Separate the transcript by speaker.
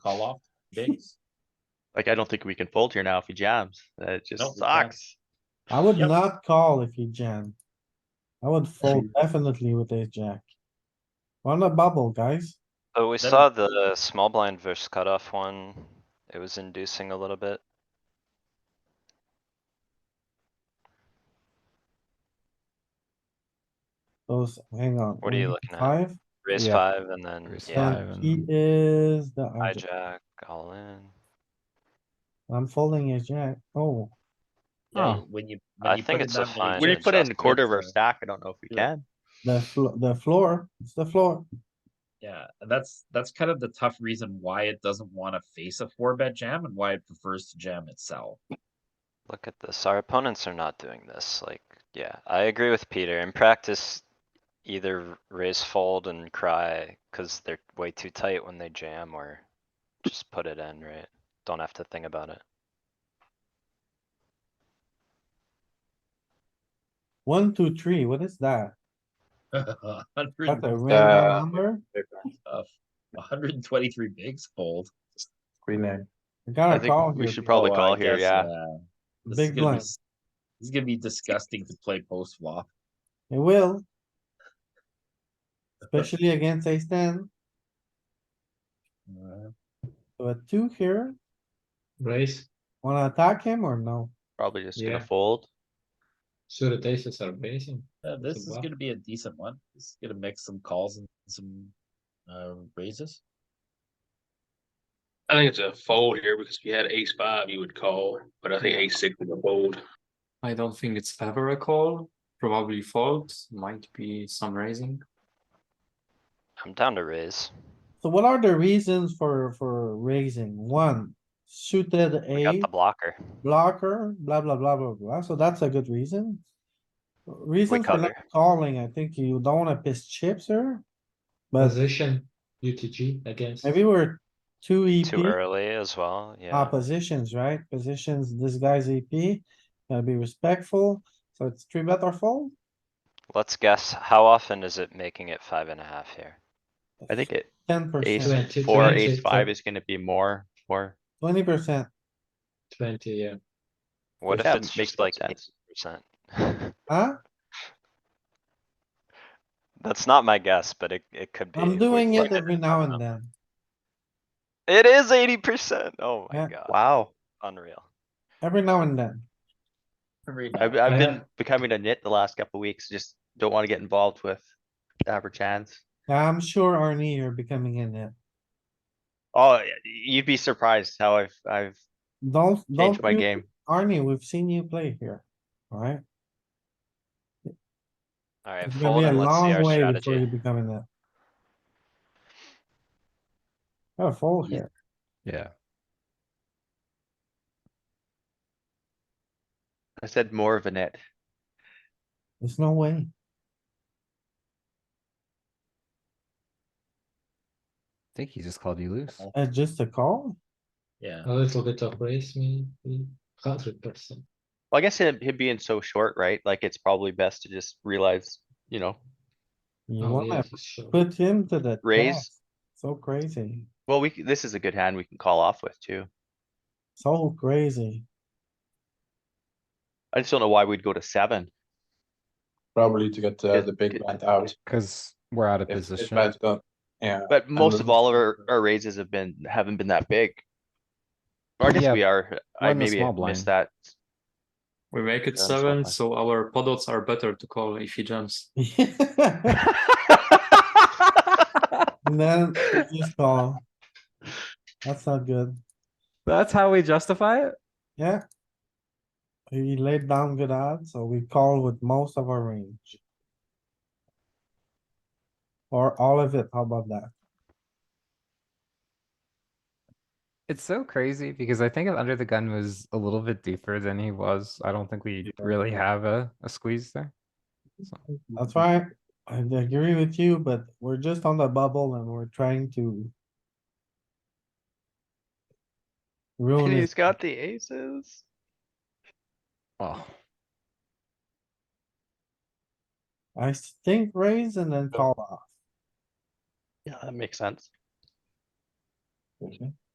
Speaker 1: call off bigs.
Speaker 2: Like, I don't think we can fold here now if he jams. That just
Speaker 1: Nope, we can't.
Speaker 2: sucks.
Speaker 3: I would
Speaker 1: Yep.
Speaker 3: not call if you jam. I would fold definitely with ace jack. We're On the bubble, guys.
Speaker 4: Oh, we
Speaker 1: Then-
Speaker 4: saw the small blind versus cutoff one. It was inducing a little bit.
Speaker 3: Those, hang on.
Speaker 4: What are you
Speaker 3: um,
Speaker 4: looking at?
Speaker 3: Five,
Speaker 4: Raise
Speaker 5: Yeah.
Speaker 4: five and then,
Speaker 5: Raise
Speaker 4: yeah,
Speaker 5: five and-
Speaker 3: he is the hijack.
Speaker 4: hijack, all in.
Speaker 3: I'm folding ace jack. Oh,
Speaker 1: Yeah,
Speaker 5: Oh.
Speaker 1: when you.
Speaker 4: I think it's a fine.
Speaker 2: When you
Speaker 4: James
Speaker 2: put in a
Speaker 4: Austin
Speaker 2: quarter of
Speaker 1: gets
Speaker 2: a
Speaker 1: a-
Speaker 2: stack, I don't know if we
Speaker 1: Yeah.
Speaker 2: can.
Speaker 3: the flo- the floor, it's the floor.
Speaker 1: Yeah, that's, that's kind of the tough reason why it doesn't wanna face a four bet jam and why it prefers to jam itself.
Speaker 4: Look at this, our opponents are not doing this, like, yeah, I agree with Peter, in practice. Either raise fold and cry, cause they're way too tight when they jam, or just put it in, right? Don't have to think about it.
Speaker 3: One, two, three, what is that? That's a
Speaker 1: Hundred,
Speaker 3: random number?
Speaker 1: hundred and twenty-three bigs fold.
Speaker 5: Rename.
Speaker 3: I
Speaker 2: I
Speaker 3: gotta call
Speaker 2: think we
Speaker 3: here.
Speaker 2: should probably
Speaker 1: Oh, I
Speaker 2: call here,
Speaker 1: guess,
Speaker 2: yeah.
Speaker 1: This is gonna
Speaker 3: Big
Speaker 1: be,
Speaker 3: blind.
Speaker 1: s- this is gonna be disgusting to play post flop.
Speaker 3: It will. Especially against ace ten,
Speaker 1: Uh,
Speaker 3: so a two here,
Speaker 6: Raise,
Speaker 3: wanna attack him or no?
Speaker 2: Probably just
Speaker 6: Yeah.
Speaker 2: gonna fold.
Speaker 6: suited aces are raising.
Speaker 1: Yeah, this is
Speaker 6: wow.
Speaker 1: gonna be a decent one. This is gonna mix some calls and some, uh, raises.
Speaker 7: I think it's a fold here because if you had ace five, you would call, but I think ace six is a fold.
Speaker 6: I don't think it's ever a call, probably fold, might be some raising.
Speaker 4: I'm down to raise.
Speaker 3: So what are the reasons for, for raising? One, suited
Speaker 4: We got
Speaker 3: a
Speaker 4: the blocker.
Speaker 3: blocker, blah, blah, blah, blah, blah. So that's a good reason. Reason for not
Speaker 4: cover.
Speaker 3: calling, I think you don't wanna piss chips here. But
Speaker 4: Mm-hmm.
Speaker 6: Position, UTG against.
Speaker 3: maybe we're two
Speaker 4: Too
Speaker 3: EP
Speaker 4: early as
Speaker 3: ah,
Speaker 4: well, yeah.
Speaker 3: positions, right? Positions, this guy's EP, gotta be respectful. So it's three bet or fold?
Speaker 4: Let's guess, how often is it making it five and a half here?
Speaker 2: I think it,
Speaker 3: Ten
Speaker 2: ace
Speaker 3: percent,
Speaker 6: Twenty,
Speaker 2: four,
Speaker 6: twenty,
Speaker 2: ace five
Speaker 6: twenty.
Speaker 2: is gonna be more, more.
Speaker 3: twenty percent.
Speaker 6: Twenty, yeah.
Speaker 4: What if
Speaker 2: That
Speaker 4: it's
Speaker 2: makes
Speaker 4: just
Speaker 2: no
Speaker 4: like eight
Speaker 2: sense.
Speaker 4: percent?
Speaker 3: Huh?
Speaker 4: That's not my guess, but it, it could be.
Speaker 3: I'm
Speaker 4: We-
Speaker 3: doing
Speaker 4: we're
Speaker 3: it
Speaker 4: gonna
Speaker 3: every
Speaker 4: find
Speaker 3: now and
Speaker 4: out.
Speaker 3: then.
Speaker 4: It is eighty percent, oh
Speaker 3: Yeah.
Speaker 4: my god,
Speaker 2: Wow,
Speaker 4: unreal.
Speaker 3: Every now and then.
Speaker 1: Every
Speaker 2: I've,
Speaker 1: now-
Speaker 2: I've been
Speaker 6: Yeah.
Speaker 2: becoming a nit the last couple weeks, just don't wanna get involved with average hands.
Speaker 3: I'm sure Arnie, you're becoming in it.
Speaker 2: Oh, y- you'd be surprised how I've, I've
Speaker 3: Don't,
Speaker 2: changed
Speaker 3: don't
Speaker 2: my
Speaker 3: you-
Speaker 2: game.
Speaker 3: Arnie, we've seen you play here, alright?
Speaker 4: Alright,
Speaker 3: It's gonna
Speaker 4: fold
Speaker 3: be a
Speaker 4: and let's see
Speaker 3: long
Speaker 4: our
Speaker 3: way before you
Speaker 4: strategy.
Speaker 3: become in that. Gotta fold
Speaker 1: Yeah.
Speaker 3: here.
Speaker 5: Yeah,
Speaker 2: I said more of a nit.
Speaker 3: There's no way.
Speaker 5: I think he just called you loose.
Speaker 3: It's Uh, just a call.
Speaker 1: Yeah,
Speaker 6: A little bit of raise, maybe, hundred percent.
Speaker 2: Well, I guess him, him being so short, right? Like, it's probably best to just realize, you know,
Speaker 3: You
Speaker 6: Oh, yeah,
Speaker 3: wanna
Speaker 6: for sure.
Speaker 3: put him to the
Speaker 2: Raise.
Speaker 3: test. So crazy,
Speaker 2: well, we, c- this is a good hand we can call off with too.
Speaker 3: so crazy.
Speaker 2: I just don't know why we'd go to seven.
Speaker 8: Probably to get uh,
Speaker 2: Yeah,
Speaker 8: the big
Speaker 2: it-
Speaker 8: blind out.
Speaker 5: Cause we're out of
Speaker 8: If his
Speaker 5: position.
Speaker 8: blind don't, yeah.
Speaker 2: But most
Speaker 8: then-
Speaker 2: of all of our, our raises have been, haven't been that big. Or I
Speaker 5: Yeah,
Speaker 2: guess we are,
Speaker 5: we're
Speaker 2: I
Speaker 5: in the
Speaker 2: maybe
Speaker 5: small
Speaker 2: missed
Speaker 5: blind.
Speaker 2: that.
Speaker 6: We make it
Speaker 2: Yeah, so
Speaker 6: seven,
Speaker 2: high.
Speaker 6: so our podots are better to call if he jumps.
Speaker 3: And then you just call. That's not good,
Speaker 5: That's how we justify it?
Speaker 3: yeah. He laid down good odds, so we call with most of our range. Or all of it, how about that?
Speaker 5: It's so crazy because I think if under the gun was a little bit deeper than he was. I don't think we really have a, a squeeze there.
Speaker 3: That's right. I agree with you, but we're just on the bubble and we're trying to. Ruin
Speaker 2: He's
Speaker 3: it.
Speaker 2: got the aces.
Speaker 5: Oh,
Speaker 3: I think raise and then call off.
Speaker 2: Yeah, that makes sense.